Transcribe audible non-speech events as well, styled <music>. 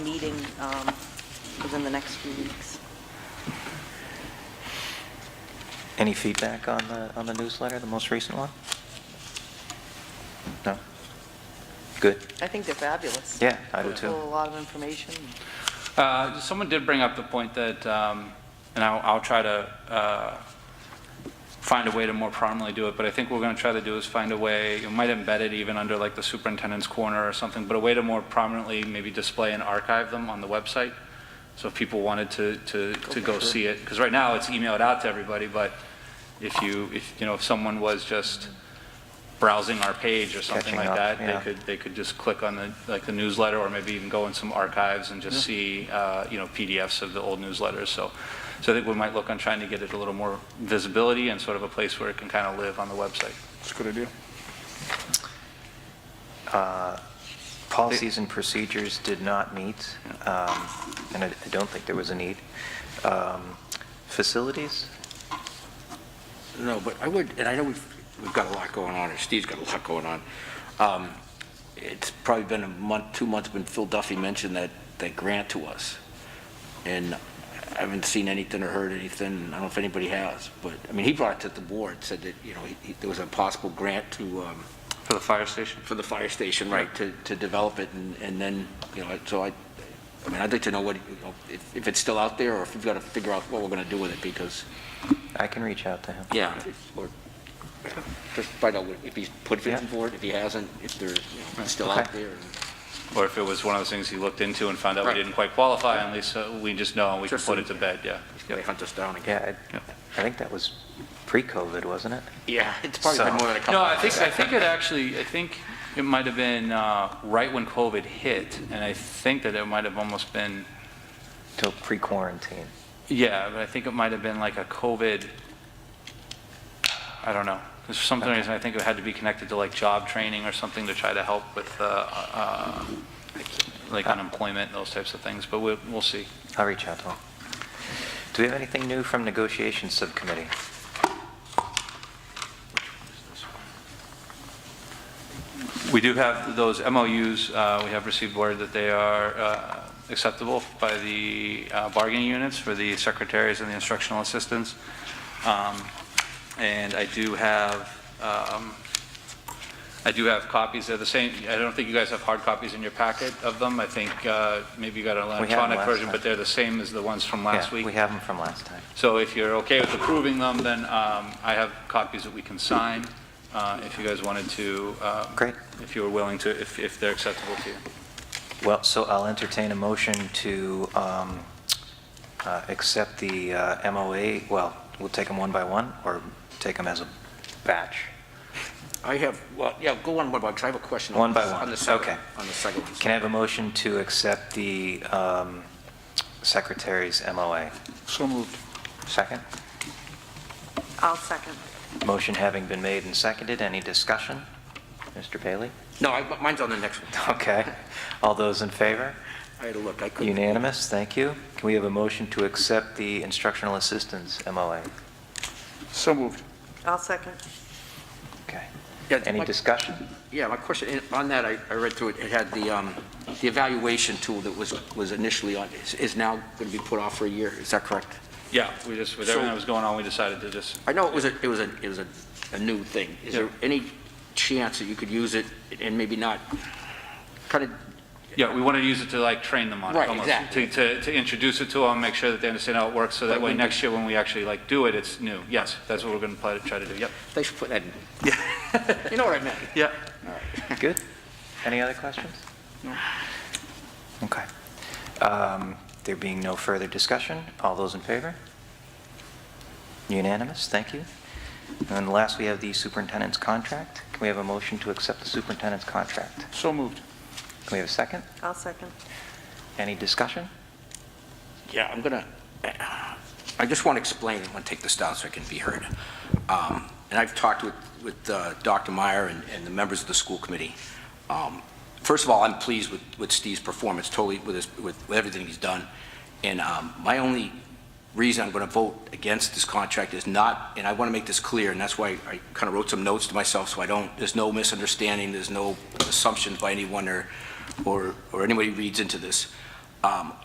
meeting um, within the next few weeks. Any feedback on the, on the newsletter, the most recent one? No? Good. I think they're fabulous. Yeah, I do too. Full of A lot of information. Uh, Someone did bring up the point that, um, and I'll I'll try to uh, find a way to more prominently do it, but I think what we're going to try to do is find a way, you might embed it even under like the superintendent's corner or something, but a way to more prominently maybe display and archive them on the website, so if people wanted to, to, to go see it, because right now it's emailed out to everybody, but if you, if, you know, if someone was just browsing our page or something Catching like up, that, yeah. they could, they could just click on the, like the newsletter, or maybe even go in some archives and just see, uh, you know, PDFs of the old newsletters, so, so I think we might look on trying to get it a little more visibility and sort of a place where it can kind of live on the website. It's a good idea. Uh, Policies and procedures did not meet, um, and I I don't think there was a need. Um, Facilities? No, but I would, and I know we've, we've got a lot going on, or Steve's got a lot going on. Um, It's probably been a month, two months, when Phil Duffy mentioned that, that grant to us. And I haven't seen anything or heard anything, I don't know if anybody has, but, I mean, he brought it to the board, said that, you know, he- he- there was a possible grant to, um, For the fire station? for the fire station, right, to, to develop it, and, and then, you know, so I, I mean, I'd like to know what, you know, if, if it's still out there, or if we've got to figure out what we're going to do with it, because I can reach out to him. yeah. Or just find out if he's put Yeah. it forward, if he hasn't, if they're, you know, it's still out Okay. there. Or if it was one of those things he looked into and found out we Right. didn't quite qualify, at least uh, we just know and we can Just put so- it to bed, yeah. and They hunt us down again. Yeah, I- Yeah. I think that was pre-COVID, wasn't it? Yeah, it's probably So- been more than a couple. No, I think, I think it actually, I think it might have been uh, right when COVID hit, and I think that it might have almost been, Till pre-quarantine. yeah, but I think it might have been like a COVID, I don't know. 'Cause For some reason, I think it had to be connected to like job training or something to try to help with, uh, uh, like unemployment and those types of things, but we'll, we'll see. I'll reach out to him. Do we have anything new from negotiations subcommittee? We do have those MOUs, uh, we have received word that they are uh, acceptable by the uh, bargaining units for the secretaries and the instructional assistants. Um, And I do have, um, I do have copies, they're the same, I don't think you guys have hard copies in your packet of them, I think uh, maybe you got an them electronic last version, but time. they're the same as the ones from last Yeah, week. We have them from last time. So if you're okay with approving them, then um, I have copies that we can sign, uh, if you guys wanted to. um, Great. If you were willing to, if if they're acceptable to you. Well, so I'll entertain a motion to um, uh, accept the uh, MOA, well, we'll take them one by one, or take them as a batch? I have, well, yeah, go on, what about, 'cause I have a question. on One by this- one, On the second, okay. on the second one. Can I have a motion to accept the um, secretary's MOA? So moved. Second? I'll second. Motion having been made and seconded, any discussion? Mr. Bailey? No, I- mine's on the next <laughs> one. Okay. All those in favor? I had to look, I couldn't. Unanimous, thank you. Can we have a motion to accept the instructional assistance MOA? So moved. I'll second. Okay. Yeah, it's Any like- discussion? Yeah, my question, in- on that, I, I read through it, it had the, um, the evaluation tool that was, was initially on, is, is now going to be put off for a year, is that correct? Yeah, we just, with So- everything that was going on, we decided to just, I know it was a, it was a, it was a, a new thing. Is there any chance that you could use it and maybe not kind of, yeah, we wanted to use it to like train them on it. Right, almost, exactly. To, to- to introduce it to them, make sure that they understand how it works, so that But way we- next year when we actually like do it, it's new. Yes, that's what we're going to try to do, yep. they should put that in? <laughs> You know what I meant? Yeah. Good. Any other questions? No. Okay. Um, There being no further discussion, all those in favor? Unanimous, thank you. And last, we have the superintendent's contract. Can we have a motion to accept the superintendent's contract? So moved. Can we have a second? I'll second. Any discussion? Yeah, I'm gonna, I just want to explain, I'm gonna take this down so it can be heard. Um, And I've talked with, with uh, Dr. Meyer and, and the members of the school committee. Um, First of all, I'm pleased with, with Steve's performance, totally with his, with with everything he's done. And um, my only reason I'm gonna vote against this contract is not, and I want to make this clear, and that's why I kind of wrote some notes to myself, so I don't, there's no misunderstanding, there's no assumptions by anyone or, or, or anybody reads into this. Um,